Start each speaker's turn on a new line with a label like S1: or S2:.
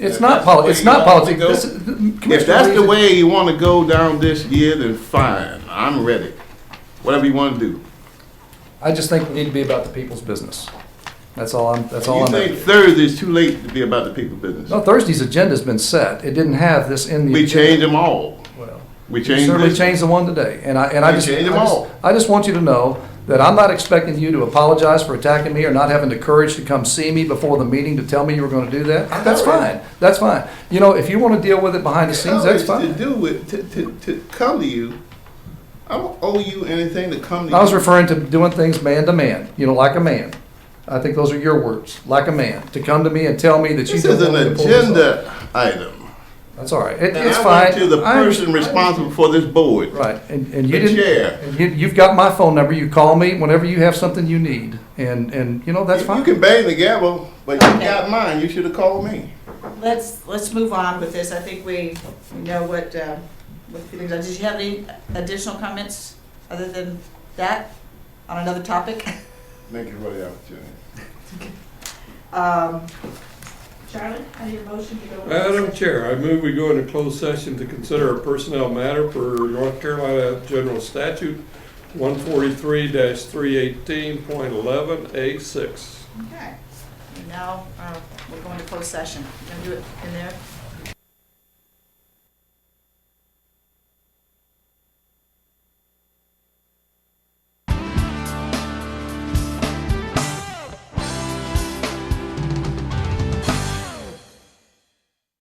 S1: It's
S2: If
S1: not
S2: that's the
S1: poli,
S2: way
S1: it's
S2: you
S1: not
S2: want
S1: politics.
S2: to go-
S1: This is- Commissioner
S2: If that's the
S1: Reeves-
S2: way you want to go down this year, then fine, I'm ready. Whatever you want to do.
S1: I just think we need to be about the people's business. That's all I'm, that's all
S2: You
S1: I'm.
S2: think Thursday's too late to be about the people business?
S1: No, Thursday's agenda's been set. It didn't have this in the.
S2: We
S1: agenda.
S2: change them all.
S1: Well.
S2: We
S1: You
S2: change
S1: certainly
S2: this.
S1: changed the one today, and I, and I
S2: You
S1: just, I
S2: changed them
S1: just,
S2: all.
S1: I just want you to know that I'm not expecting you to apologize for attacking me or not having the courage to come see me before the meeting to tell me you were gonna do that. That's fine, that's fine. You know, if you wanna deal with it behind the scenes, that's
S2: To
S1: fine.
S2: do it, to, to, to come to you, I don't owe you anything to come to you.
S1: I was referring to doing things man to man, you know, like a man. I think those are your words, like a man, to come to me and tell me that you
S2: This
S1: don't
S2: is
S1: want
S2: an
S1: me to pull this off.
S2: agenda item.
S1: That's all right, It-
S2: And
S1: it's
S2: I
S1: fine.
S2: went to the
S1: I under-
S2: person responsible for this board.
S1: Right, and, and you
S2: The
S1: didn't.
S2: chair.
S1: and You, you've got my phone number, you call me whenever you have something you need, and, and, you know, that's
S2: You-
S1: fine.
S2: You can bang the gavel, but you
S3: Okay.
S2: got mine, you should have called me.
S3: Let's, let's move on with this. I think we we know what, uh, what feelings are. Did you have any additional comments other than that on another topic?
S2: Thank you for the opportunity.
S3: Um, Charlie, I need a motion to go.
S4: Madam Chair, I move we go into closed session to consider a personnel matter per North Carolina General Statute one forty-three three eighteen point eleven A six.
S3: Okay. And Now, uh, we're going to closed session. Going to do it in there?